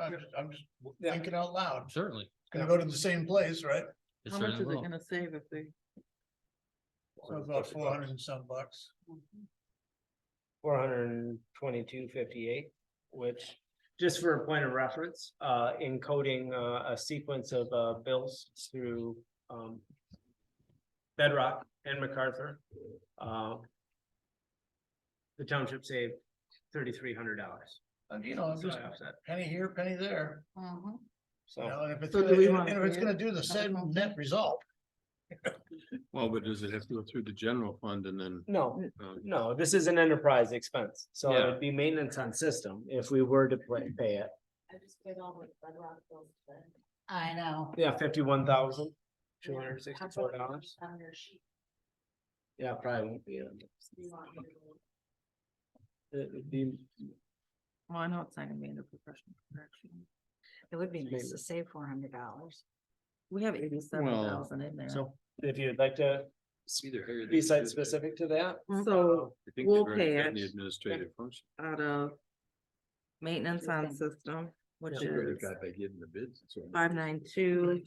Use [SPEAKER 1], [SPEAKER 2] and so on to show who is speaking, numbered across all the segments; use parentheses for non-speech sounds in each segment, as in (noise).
[SPEAKER 1] I'm just, I'm just
[SPEAKER 2] Yeah.
[SPEAKER 1] thinking out loud. It's
[SPEAKER 3] Certainly.
[SPEAKER 1] gonna go to the same place, right?
[SPEAKER 3] it
[SPEAKER 4] How much is it
[SPEAKER 3] certainly will.
[SPEAKER 4] gonna save if they?
[SPEAKER 1] So about four hundred and some bucks.
[SPEAKER 2] four hundred and twenty-two fifty-eight, which, just for a point of reference, uh, encoding uh, a sequence of uh, bills through um, Bedrock and MacArthur, uh, the township saved thirty-three hundred dollars.
[SPEAKER 1] And you know, just penny here, penny there,
[SPEAKER 5] Uh-huh.
[SPEAKER 4] Mhm.
[SPEAKER 1] you know,
[SPEAKER 2] So,
[SPEAKER 1] and if it's,
[SPEAKER 4] So do
[SPEAKER 1] gonna-
[SPEAKER 4] we
[SPEAKER 1] and
[SPEAKER 4] wanna
[SPEAKER 1] if it's
[SPEAKER 4] pay it?
[SPEAKER 1] gonna do the same net result.
[SPEAKER 6] Well, but does it have to go through the general fund and then?
[SPEAKER 2] no,
[SPEAKER 6] uh,
[SPEAKER 2] no, this is an enterprise expense, so it
[SPEAKER 6] Yeah.
[SPEAKER 2] would be maintenance on system if we were to pay pay it.
[SPEAKER 5] I just paid all my Red Rock bills today.
[SPEAKER 4] I know.
[SPEAKER 2] Yeah, fifty-one thousand, two hundred and
[SPEAKER 5] How about
[SPEAKER 2] sixty-four
[SPEAKER 5] you
[SPEAKER 2] dollars.
[SPEAKER 5] On your sheet,
[SPEAKER 2] Yeah, probably won't be. it.
[SPEAKER 5] do you want me to go?
[SPEAKER 2] It would be
[SPEAKER 4] Well, I know it's not gonna be in the professional correction.
[SPEAKER 7] It would be nice to
[SPEAKER 2] Maybe.
[SPEAKER 7] save four hundred dollars.
[SPEAKER 4] We have eighty-seven thousand in there.
[SPEAKER 2] So if you'd like to s-
[SPEAKER 6] Either here. or
[SPEAKER 2] be
[SPEAKER 6] there.
[SPEAKER 2] site specific to that.
[SPEAKER 4] So
[SPEAKER 6] I think
[SPEAKER 4] We'll
[SPEAKER 6] they've already
[SPEAKER 4] pay
[SPEAKER 6] done The
[SPEAKER 4] it.
[SPEAKER 6] administrative function.
[SPEAKER 4] out of maintenance on system, which
[SPEAKER 6] They
[SPEAKER 4] is
[SPEAKER 6] got by getting the bids. and so on.
[SPEAKER 4] five nine two.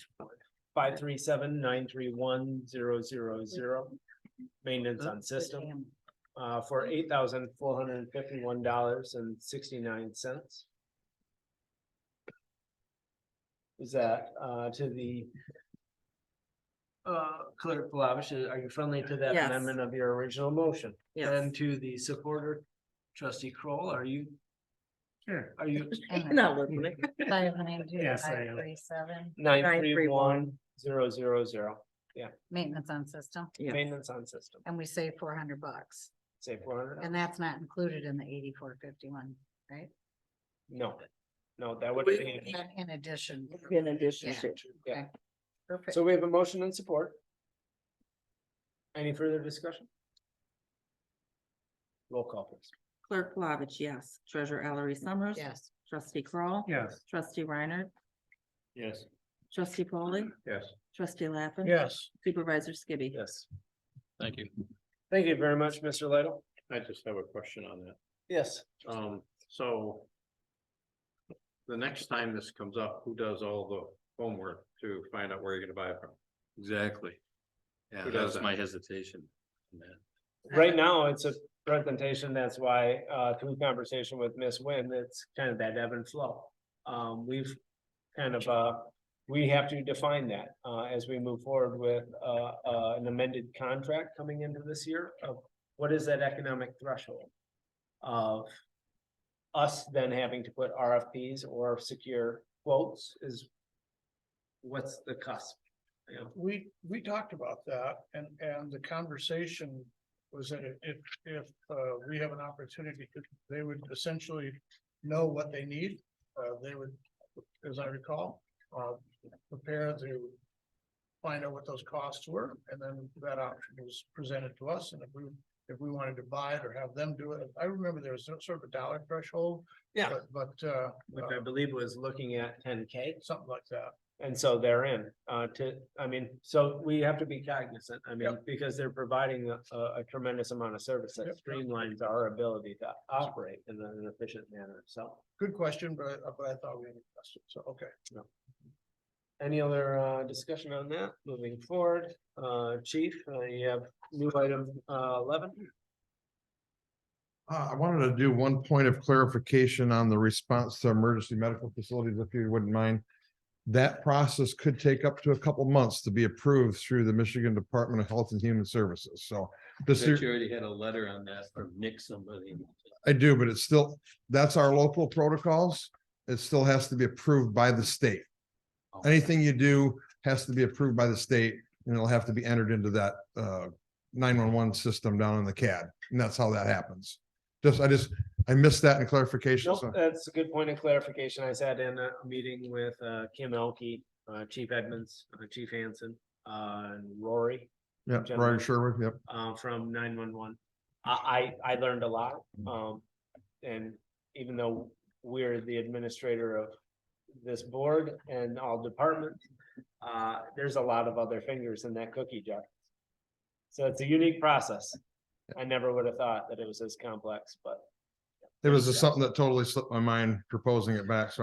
[SPEAKER 2] Five three seven nine three one zero zero zero. Maintenance on system (laughs) uh for eight thousand four hundred and fifty one dollars and sixty nine cents. Is that uh to the uh clerk Flavish, are you friendly to that
[SPEAKER 4] Yes.
[SPEAKER 2] amendment of your original motion?
[SPEAKER 4] Yes.
[SPEAKER 2] And to the supporter trustee Kroll, are you? Sure. Are (laughs) you
[SPEAKER 4] (laughs) Not listening.
[SPEAKER 7] Five ninety-two,
[SPEAKER 2] Yes, I
[SPEAKER 7] five
[SPEAKER 2] am.
[SPEAKER 7] thirty-seven,
[SPEAKER 2] nine three
[SPEAKER 4] 931.
[SPEAKER 2] one zero zero zero,
[SPEAKER 7] maintenance on system,
[SPEAKER 4] Yeah.
[SPEAKER 2] maintenance on system,
[SPEAKER 7] and we save four hundred bucks.
[SPEAKER 2] say four hundred,
[SPEAKER 7] And that's not included in the eighty-four fifty-one, right?
[SPEAKER 2] no, no, that would be.
[SPEAKER 7] In- In addition.
[SPEAKER 4] In addition
[SPEAKER 7] Yeah.
[SPEAKER 4] to.
[SPEAKER 2] Yeah,
[SPEAKER 7] Perfect.
[SPEAKER 2] so we have a motion and support. Any further discussion? Roll call please.
[SPEAKER 4] Clerk Flavich, yes. Treasurer Ellery Summers.
[SPEAKER 7] Yes,
[SPEAKER 4] Trustee Crawl.
[SPEAKER 2] Yes.
[SPEAKER 4] Trustee Reiner.
[SPEAKER 6] Yes.
[SPEAKER 4] Trustee Polly.
[SPEAKER 6] Yes.
[SPEAKER 4] Trustee Lappin.
[SPEAKER 1] Yes,
[SPEAKER 4] Supervisor Skibby.
[SPEAKER 2] Yes,
[SPEAKER 3] Thank you.
[SPEAKER 2] thank you very much, Mr. Lidle.
[SPEAKER 6] I just have a question on that.
[SPEAKER 2] Yes,
[SPEAKER 6] Um, so. The next time this comes up, who does all the homework to find out where you're gonna buy it from? Exactly. Yeah,
[SPEAKER 3] Who does
[SPEAKER 6] that's
[SPEAKER 3] that?
[SPEAKER 6] my hesitation. on that.
[SPEAKER 2] right now, it's a presentation, that's why, uh, through conversation with Miss Nguyen, it's kind of that ebb and flow. Um, we've kind of, uh, we have to define that, uh, as we move forward with, uh, uh, an amended contract coming into this year of what is that economic threshold? Of us then having to put RFPs or secure quotes is what's the cusp? you know?
[SPEAKER 1] we, we talked about that and, and the conversation was that if, if, uh, we have an opportunity, they would essentially know what they need. Uh, they would, as I recall, uh, prepare to find out what those costs were, and then that option was presented to us, and if we, if we wanted to buy it or have them do it, I remember there was some sort of a dollar threshold.
[SPEAKER 2] Yeah.
[SPEAKER 1] but- But, uh,
[SPEAKER 2] Which I believe was looking at ten K.
[SPEAKER 1] something like that.
[SPEAKER 2] And so they're in, uh, to, I mean, so we have to be cognizant, I mean, because they're providing a, a tremendous amount of service that
[SPEAKER 1] Yep.
[SPEAKER 2] streamlines our ability to operate in an efficient manner, so.
[SPEAKER 1] Good question, but, but I thought we had a question, so, okay.
[SPEAKER 2] Any other, uh, discussion on that, moving forward, uh, chief, uh, you have new item, uh, eleven?
[SPEAKER 8] Uh, I wanted to do one point of clarification on the response to emergency medical facilities, if you wouldn't mind. That process could take up to a couple months to be approved through the Michigan Department of Health and Human Services, so. This,
[SPEAKER 3] But you already had a letter on that from Nick somebody.
[SPEAKER 8] I do, but it's still, that's our local protocols. It still has to be approved by the state. Anything you do has to be approved by the state and it'll have to be entered into that uh nine-one-one system down in the CAD. And that's how that happens. Just, I just, I missed that in clarification.
[SPEAKER 2] Nope,
[SPEAKER 8] so-
[SPEAKER 2] that's a good point of clarification. I sat in a meeting with uh Kim Elke, uh Chief Edmonds, uh, Chief Hanson, uh and Rory.
[SPEAKER 8] Yeah,
[SPEAKER 2] General.
[SPEAKER 8] Brian Sherwood, yep.
[SPEAKER 2] uh from nine one one. I I I learned a lot, um and even though we're the administrator of this board and all departments, uh there's a lot of other fingers in that cookie jar. So it's a unique process. I never would have thought that it was as complex, but
[SPEAKER 8] It was just something that totally slipped my mind proposing it back, so